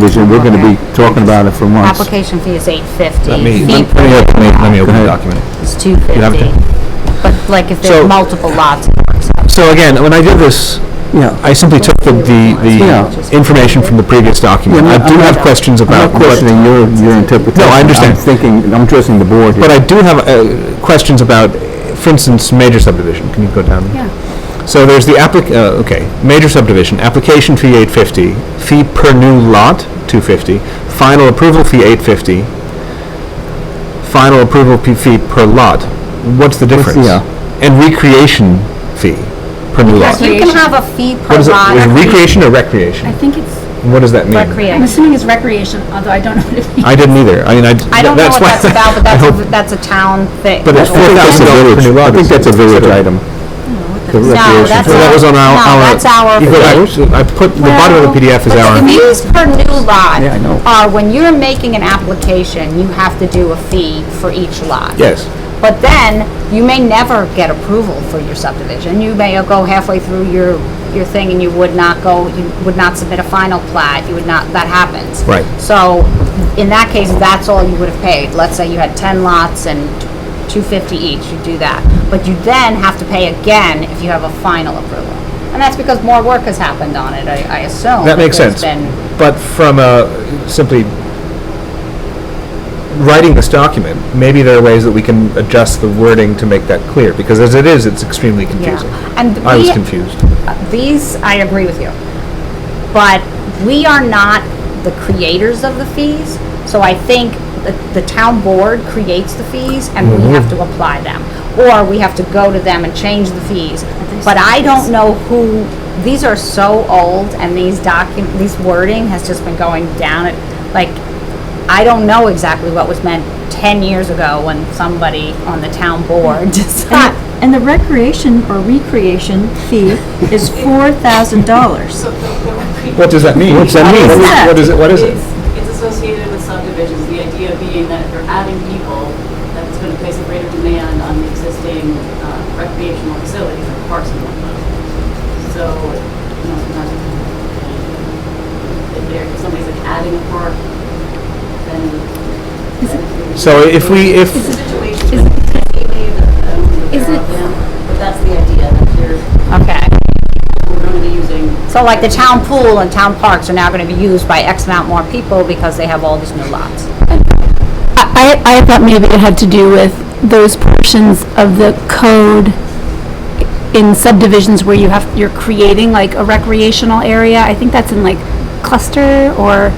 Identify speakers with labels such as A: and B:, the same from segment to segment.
A: Vision, we're gonna be talking about it for months.
B: Application fee is eight fifty.
C: Let me, let me open, it- let me open the
A: ahead.
C: document.
B: It's two fifty.
C: it?
B: But like if
C: So-
B: there's multiple lots, it works out.
C: So again, when I did this,
A: Yeah,
C: I simply took the, the,
A: Yeah.
C: the information from the previous document.
A: Yeah,
C: I
A: no,
C: do
A: I'm
C: have
A: not-
C: questioning
A: I'm
C: about,
A: not
C: but,
A: questioning your, your interpretation.
C: No, I understand.
A: I'm thinking, I'm addressing the board here.
C: but I do have, uh, questions about, for instance, major subdivision. Can you go down?
B: Yeah.
C: So there's the applic, uh, okay, major subdivision, application fee eight fifty, fee per new lot, two fifty, final approval fee eight fifty, final approval p- fee per lot. What's the difference?
A: yeah.
C: And recreation fee per new lot.
B: You can have a fee per
C: What is it,
B: lot.
C: is it recreation or
D: I
C: recreation?
D: think it's,
C: What does that mean?
D: I'm
B: Recreation.
D: assuming it's recreation, although I don't know what it means.
C: I didn't either. I mean, I.
B: I don't know
C: that's
B: what
C: why-
B: that's about, but
C: I
B: that's,
C: hope-
B: a- that's a town thing.
C: But it's
A: I think that's a
C: $4,000
A: village,
C: per new lot
A: I think
C: is
A: that's a village
C: considered.
A: item. The
B: No,
A: recreation
B: that's
A: fee.
C: So that was on our,
B: No,
C: our.
B: that's our
C: You go back- I put, the bottom of the PDF is
B: But
C: our.
B: the fees per new lot
A: Yeah, I know.
B: are when you're making an application, you have to do a fee for each lot.
C: Yes.
B: But then, you may never get approval for your subdivision. You may go halfway through your, your thing and you would not go, you would not submit a final plat, you would not, that happens.
C: Right.
B: So, in that case, that's all you would have paid. Let's say you had ten lots and two fifty each, you do that. But you then have to pay again if you have a final approval. And that's because more work has happened on it, I, I assume.
C: That makes
B: there's
C: sense.
B: been-
C: But from a, simply writing this document, maybe there are ways that we can adjust the wording to make that clear, because as it is, it's extremely confusing.
B: And
C: I was
B: we-
C: confused.
B: These, I agree with you. But we are not the creators of the fees, so I think the, the town board creates the fees and we have to apply them. Or we have to go to them and change the fees. But I don't know who, these are so old and these docu, these wording has just been going down at, like, I don't know exactly what was meant ten years ago when somebody on the town board decided.
E: And the recreation or recreation fee is four thousand dollars.
C: What does that mean? What's that
E: mean?
C: What is it, what is it?
F: It's, it's associated with subdivisions, the idea being that if you're adding people, that it's going to place a greater demand on the existing uh, recreational facilities like parks and whatnot. So, you know, sometimes if there, if somebody's like adding a park, then.
C: So if we, if,
F: It's a situation, maybe, that, I don't know if
D: Is
F: they're
D: it-
F: up now, but that's the idea, that they're,
B: Okay.
F: we're going to be using.
B: So like the town pool and town parks are now gonna be used by X amount more people because they have all these new lots.
G: I, I thought maybe it had to do with those portions of the code in subdivisions where you have, you're creating like a recreational area. I think that's in like cluster or,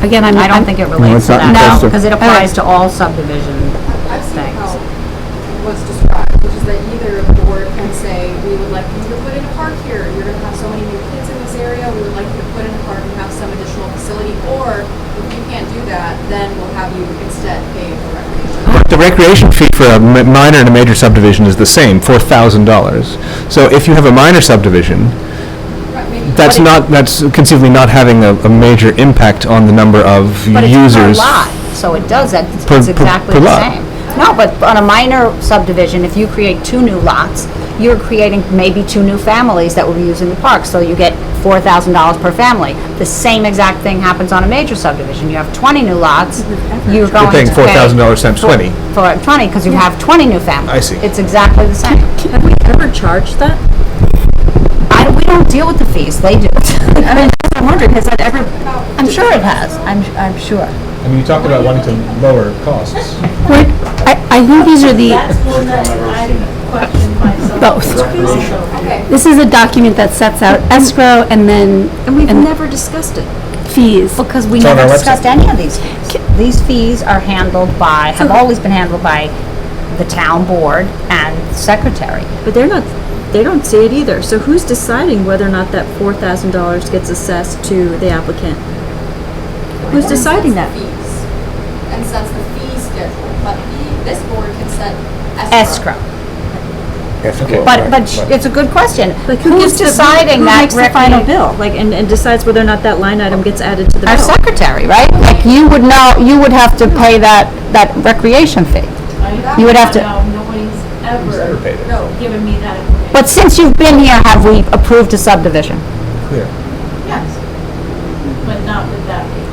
G: again, I'm.
B: I don't
G: I'm-
B: think it relates to
A: it's not
B: that.
A: No.
B: Because it applies to all subdivision
H: I've seen how
B: things.
H: it was described, which is that either the board can say, we would like you to put in a park here, you're gonna have so many new kids in this area, we would like you to put in a park and have some additional facility, or if you can't do that, then we'll have you instead pay for recreation.
C: But the recreation fee for a mi- minor and a major subdivision is the same, four thousand dollars. So if you have a minor subdivision,
H: Right, maybe-
C: that's not, that's conceivably not having a, a major impact on the number of
B: But it's per
C: users.
B: lot, so it does, that.
C: Per-
B: it's
C: per-
B: exactly
C: per
B: the
C: lot.
B: same. No, but on a minor subdivision, if you create two new lots, you're creating maybe two new families that will be using the park, so you get four thousand dollars per family. The same exact thing happens on a major subdivision, you have twenty new lots, you're going to pay.
C: You're paying four thousand dollars times twenty.
B: for 20, because you have 20 new families.
C: I see.
B: It's exactly the same.
E: Have we ever charged that?
B: I, we don't deal with the fees, they do.
E: I mean, that's what I'm wondering, has that ever,
B: I'm sure it has, I'm, I'm sure.
C: I mean, you talked about wanting to lower costs.
G: We're- I, I think these are the,
F: That's one that I question myself.
G: Both.
H: Okay,
G: this is a document that sets out escrow and then
E: and we've
G: And-
E: never discussed it.
G: fees.
B: Because we
C: It's on
B: never
C: our website.
B: discussed any of these fees. These fees are handled by, have always been handled by the town board and secretary.
E: But they're not, they don't see it either, so who's deciding whether or not that four thousand dollars gets assessed to the applicant? Who's deciding that?
H: Fees, and sets the fee schedule, but the, this board can set escrow.
B: Escrow. But, but sh- it's a good question.
E: Like, who
B: Who's
E: gives the- who-
B: deciding that?
E: Who makes the
B: recre-
E: final bill, like, and, and decides whether or not that line item gets added to the bill?
B: Our secretary, right? Like, you would know, you would have to pay that, that recreation fee. You would have to-
F: No, nobody's ever
C: paid it.
F: given me that information.
B: But since you've been here, have we approved a subdivision?
C: Clear.